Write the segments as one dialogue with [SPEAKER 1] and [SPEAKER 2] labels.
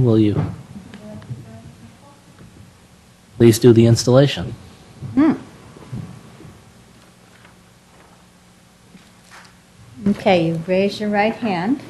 [SPEAKER 1] Will you please do the installation?
[SPEAKER 2] Okay, you raise your right hand.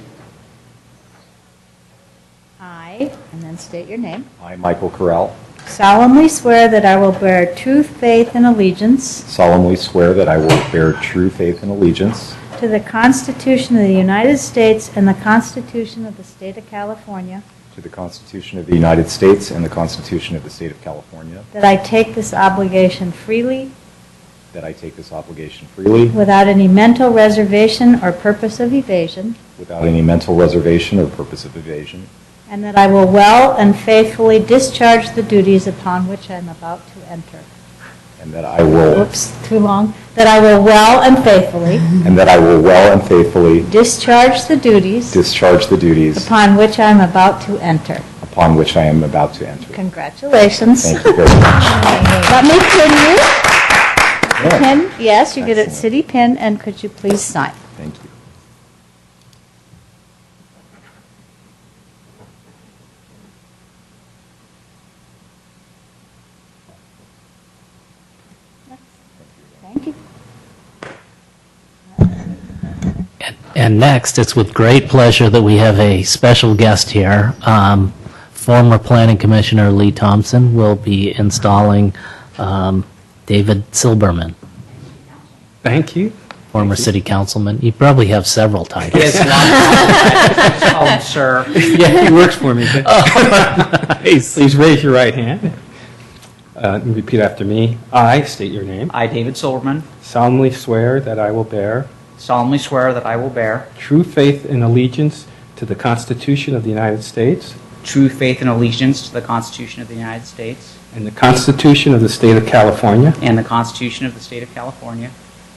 [SPEAKER 2] I, and then state your name,
[SPEAKER 3] I, Michael Correll,
[SPEAKER 2] solemnly swear that I will bear true faith and allegiance
[SPEAKER 3] solemnly swear that I will bear true faith and allegiance
[SPEAKER 2] to the Constitution of the United States and the Constitution of the State of California,
[SPEAKER 3] to the Constitution of the United States and the Constitution of the State of California,
[SPEAKER 2] that I take this obligation freely
[SPEAKER 3] that I take this obligation freely
[SPEAKER 2] without any mental reservation or purpose of evasion,
[SPEAKER 3] without any mental reservation or purpose of evasion,
[SPEAKER 2] and that I will well and faithfully discharge the duties upon which I am about to enter.
[SPEAKER 3] and that I will,
[SPEAKER 2] Oops, too long. That I will well and faithfully
[SPEAKER 3] and that I will well and faithfully
[SPEAKER 2] Discharge the duties
[SPEAKER 3] discharge the duties
[SPEAKER 2] upon which I am about to enter.
[SPEAKER 3] upon which I am about to enter.
[SPEAKER 2] Congratulations.
[SPEAKER 3] Thank you very much.
[SPEAKER 2] Let me pin you.
[SPEAKER 3] Yeah,
[SPEAKER 2] Pin, yes, you get it,
[SPEAKER 3] Excellent.
[SPEAKER 2] city pin, and could you please sign?
[SPEAKER 3] Thank you.
[SPEAKER 2] Thank you.
[SPEAKER 1] And next, it's with great pleasure that we have a special guest here. Um, Former Planning Commissioner Lee Thompson will be installing um, David Silberman,
[SPEAKER 4] Thank you.
[SPEAKER 1] former city councilman. You probably have several titles.
[SPEAKER 4] Yes, not-
[SPEAKER 5] um,
[SPEAKER 4] call him sir. Yeah, he works for me. Please raise your right hand. Uh, and Repeat after me. I state your name.
[SPEAKER 5] I, David Silverman,
[SPEAKER 4] solemnly swear that I will bear
[SPEAKER 5] solemnly swear that I will bear
[SPEAKER 4] true faith and allegiance to the Constitution of the United States
[SPEAKER 5] true faith and allegiance to the Constitution of the United States
[SPEAKER 4] and the Constitution of the State of California,
[SPEAKER 5] and the Constitution of the State of California,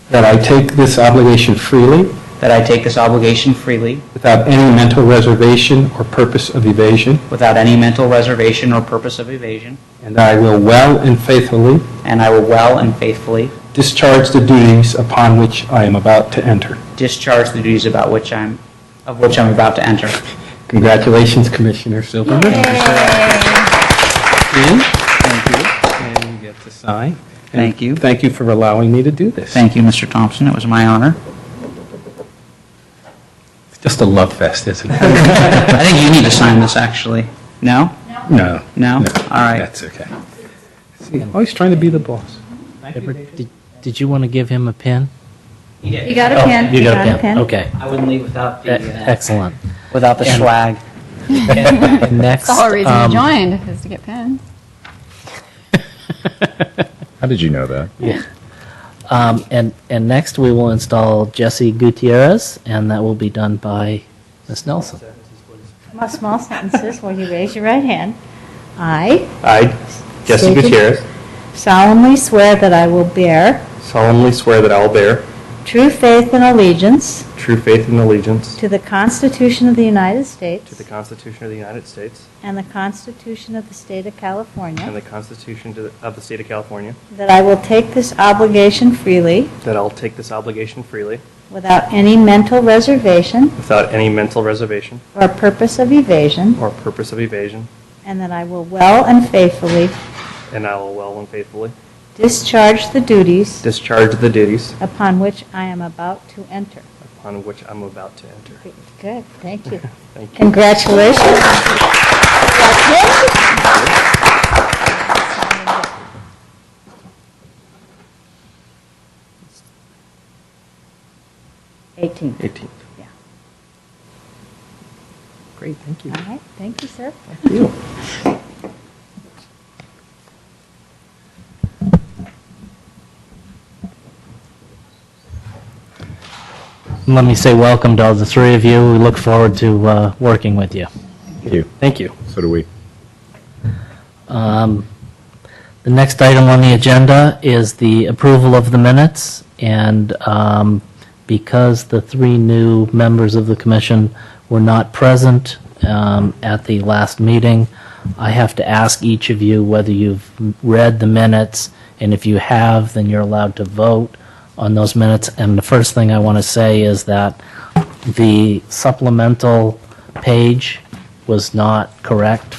[SPEAKER 4] that I take this obligation freely
[SPEAKER 5] that I take this obligation freely
[SPEAKER 4] without any mental reservation or purpose of evasion,
[SPEAKER 5] without any mental reservation or purpose of evasion,
[SPEAKER 4] and that I will well and faithfully
[SPEAKER 5] and I will well and faithfully
[SPEAKER 4] discharge the duties upon which I am about to enter.
[SPEAKER 5] discharge the duties about which I'm, of which I'm about to enter.
[SPEAKER 4] Congratulations, Commissioner Silverman. And
[SPEAKER 5] Thank you.
[SPEAKER 4] and you get to sign.
[SPEAKER 5] Thank you.
[SPEAKER 4] Thank you for allowing me to do this.
[SPEAKER 5] Thank you, Mr. Thompson. It was my honor.
[SPEAKER 4] It's just a love fest, isn't it?
[SPEAKER 5] I think you need to sign this, actually. No?
[SPEAKER 4] No.
[SPEAKER 5] No? All right.
[SPEAKER 4] That's okay. See, always trying to be the boss.
[SPEAKER 1] Edward, did- Did you want to give him a pin?
[SPEAKER 2] You got a
[SPEAKER 1] Oh,
[SPEAKER 2] pin?
[SPEAKER 1] You got a pin, okay.
[SPEAKER 5] I wouldn't leave without
[SPEAKER 1] E- Excellent.
[SPEAKER 5] without the swag.
[SPEAKER 1] And next,
[SPEAKER 6] The whole reason
[SPEAKER 1] um,
[SPEAKER 6] you joined is to get pins.
[SPEAKER 3] How did you know that?
[SPEAKER 1] Um, and, and next, we will install Jesse Gutierrez, and that will be done by Ms. Nelson.
[SPEAKER 2] Small- Small sentences, will you raise your right hand? I
[SPEAKER 4] I, Jesse
[SPEAKER 2] Stated.
[SPEAKER 4] Gutierrez,
[SPEAKER 2] solemnly swear that I will bear
[SPEAKER 4] solemnly swear that I will bear
[SPEAKER 2] true faith and allegiance
[SPEAKER 4] true faith and allegiance
[SPEAKER 2] to the Constitution of the United States
[SPEAKER 7] To the Constitution of the United States
[SPEAKER 2] and the Constitution of the State of
[SPEAKER 7] and
[SPEAKER 2] California,
[SPEAKER 7] the Constitution to the- of the State of California,
[SPEAKER 2] that I will take this obligation freely
[SPEAKER 7] that I'll take this obligation freely,
[SPEAKER 2] without any mental reservation
[SPEAKER 7] without any mental reservation
[SPEAKER 2] or purpose of evasion,
[SPEAKER 7] or purpose of evasion,
[SPEAKER 2] and that I will well and faithfully
[SPEAKER 7] and I will well and faithfully
[SPEAKER 2] discharge the duties
[SPEAKER 7] discharge the duties
[SPEAKER 2] upon which I am about to enter.
[SPEAKER 7] upon which I'm about to enter.
[SPEAKER 2] Good, thank you.
[SPEAKER 7] Thank you.
[SPEAKER 2] Congratulations. Eighteen.
[SPEAKER 7] 18th.
[SPEAKER 2] Yeah.
[SPEAKER 4] Great, thank you.
[SPEAKER 2] All right, thank you, sir.
[SPEAKER 4] you.
[SPEAKER 1] Let me say welcome to all the three of you. We look forward to uh, working with you.
[SPEAKER 3] Thank you.
[SPEAKER 4] Thank you.
[SPEAKER 3] So do we.
[SPEAKER 1] Um, The next item on the agenda is the approval of the minutes, and um, because the three new members of the commission were not present um, at the last meeting, I have to ask each of you whether you've read the minutes, and if you have, then you're allowed to vote on those minutes. And the first thing I want to say is that the supplemental page was not correct